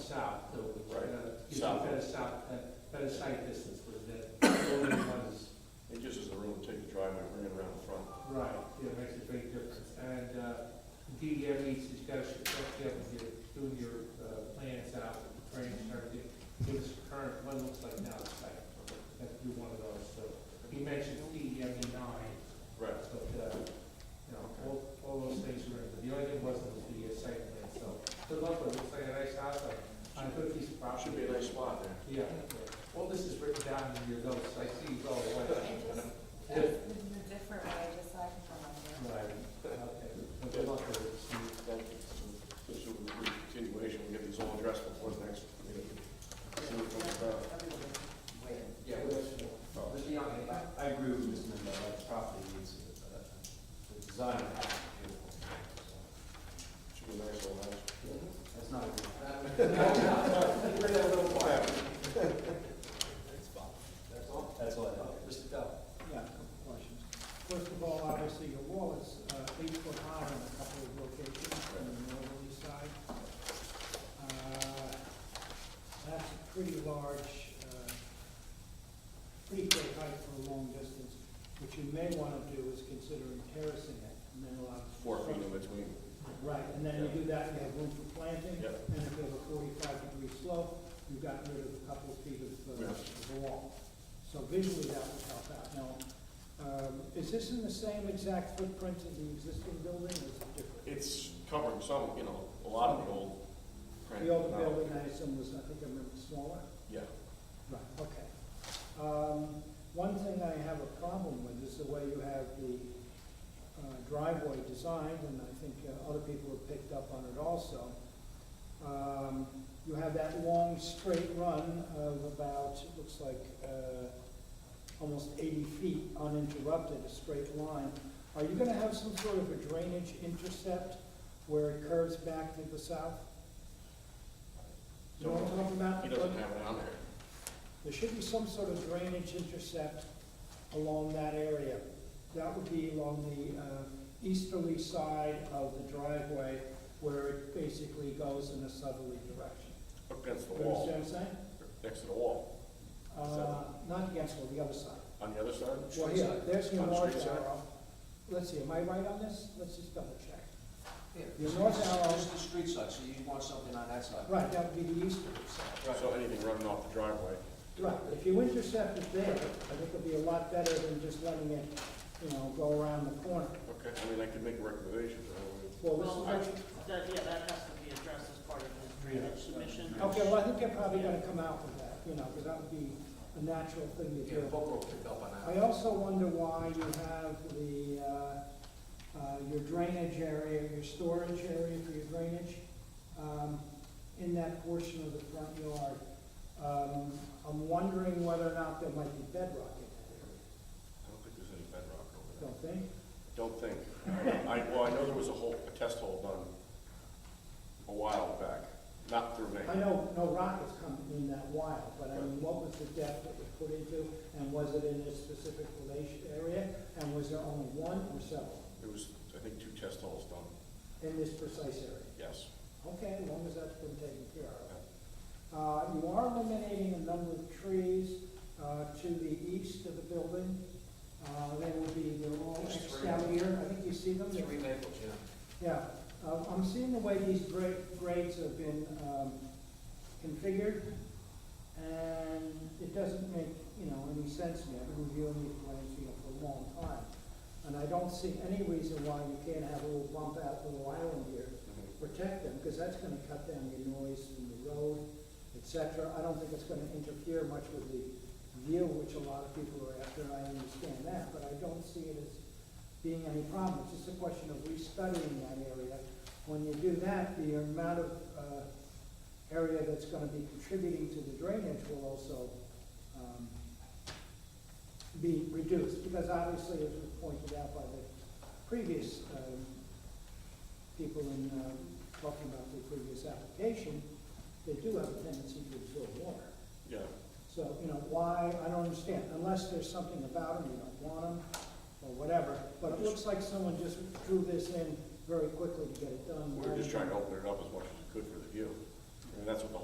south, so it's Right. gonna give you South. better south, uh, better sight distance with the building ones. It gives us the room to take the driveway, bring it around the front. Right, yeah, it makes a big difference. And uh, DDM needs, you've got to check up with your, doing your uh, plans out, drainage and everything. Give us current, what it looks like now, it's like, if you one of those, so. You mentioned DEM E nine, Right. but, uh, you know, all, all those things were, in there. the only thing wasn't was the uh, site plan, so. Good luck with it, it's like a nice house, on- on a good piece of property. Should be a nice spot there. Yeah, yeah. all this is written down in your notes, I see you go I away. just, that's a different way, just like from my Right, okay, good luck with it, Steve. Thank you. So This will be a continuation, we'll get these all addressed before the next meeting. See what comes about. Yeah, Oh. Mr. Young, I, I agree with Mr. Mendel, that property needs, uh, the design of the house is beautiful. so Should be a nice little house. That's not a good. That's all? That's all I have. Mr. Dell? Yeah, a couple questions. First of all, obviously, your wall is uh, eight foot high in a couple of locations on the northerly side. Uh, That's a pretty large, uh, pretty great height for a long distance. What you may want to do is consider terracing it, and then allow. Four feet in between. Right, and then you do that, you have room for planting. Yep. And if you have a forty-five degree slope, you've got rid of a couple of feet of, uh, Yeah. of the wall. So visually, that would help out. Now, um, is this in the same exact footprint of the existing building, or is it different? It's covering some, you know, a lot of the old. The older building, I assume, was, I think I remember, smaller? Yeah. Right, okay. Um, One thing I have a problem with is the way you have the uh, driveway designed, and I think uh, other people have picked up on it also. Um, You have that long straight run of about, it looks like, uh, almost 80 feet uninterrupted, a straight line. Are you going to have some sort of a drainage intercept where it curves back to the south? You know what I'm talking about? He doesn't have it on there. There should be some sort of drainage intercept along that area. That would be along the uh, easterly side of the driveway where it basically goes in a southerly direction. Up against the You wall, understand what I'm saying? next to the wall, Uh, Not against, well, the other side. on the other side. Well, here, there's your On the north street side? arrow. Let's see, am I right on this? Let's just double check. Yeah. The north This is- arrow- This is the street side, so you want something on that side. Right, that would be the easterly side. So anything running off the driveway. Right, if you intercept it there, I think it'd be a lot better than just letting it, you know, go around the corner. Okay, I mean, I could make a recommendation, but I don't know. Well, this is Well, I, what you- that, yeah, that has to be addressed as part of the drainage submission. Okay, well, I think they're probably gonna come out with that, you know, because that would be a natural thing to Yeah, do. Boca will pick up on that. I also wonder why you have the, uh, uh, your drainage area, your storage area for your drainage, um, in that portion of the front yard. Um, I'm wondering whether or not there might be bedrock in that area, I don't think there's any bedrock over there. don't think? Don't think. I, well, I know there was a hole, a test hole done a while back, not through me. I know no rock has come in that while, but I mean, what was the depth that was put into, and was it in a specific relation area? And was there only one or several It was, I think, two test holes done, in this precise area? yes. Okay, as long as that's been taken care of. Uh, you are eliminating a number of trees, uh, to the east of the building. Uh, they will be, they're all There's Xed three. out here, I think you see them, They're Three maples, yeah. Yeah, uh, I'm seeing the way these gra- grades have been um, configured, and it doesn't make, you know, any sense to me. I've been reviewing these plans, you know, for a long time, and I don't see any reason why you can't have a little bump out, little island here, Mhm. to protect them, because that's gonna cut down your noise in the road, et cetera. I don't think it's gonna interfere much with the view, which a lot of people are after, and I understand that, but I don't see it as being any problem. It's just a question of restudying that area. When you do that, the amount of, uh, area that's gonna be contributing to the drainage will also, um, be reduced, because obviously, as was pointed out by the previous, um, people in, um, talking about the previous application, they do have a tendency to absorb water. Yeah, So, you know, why, I don't understand, unless there's something about them, you don't want them, or whatever. But it looks like someone just drew this in very quickly to get it done. we were just trying to open it up as much as we could for the view. I mean, that's what the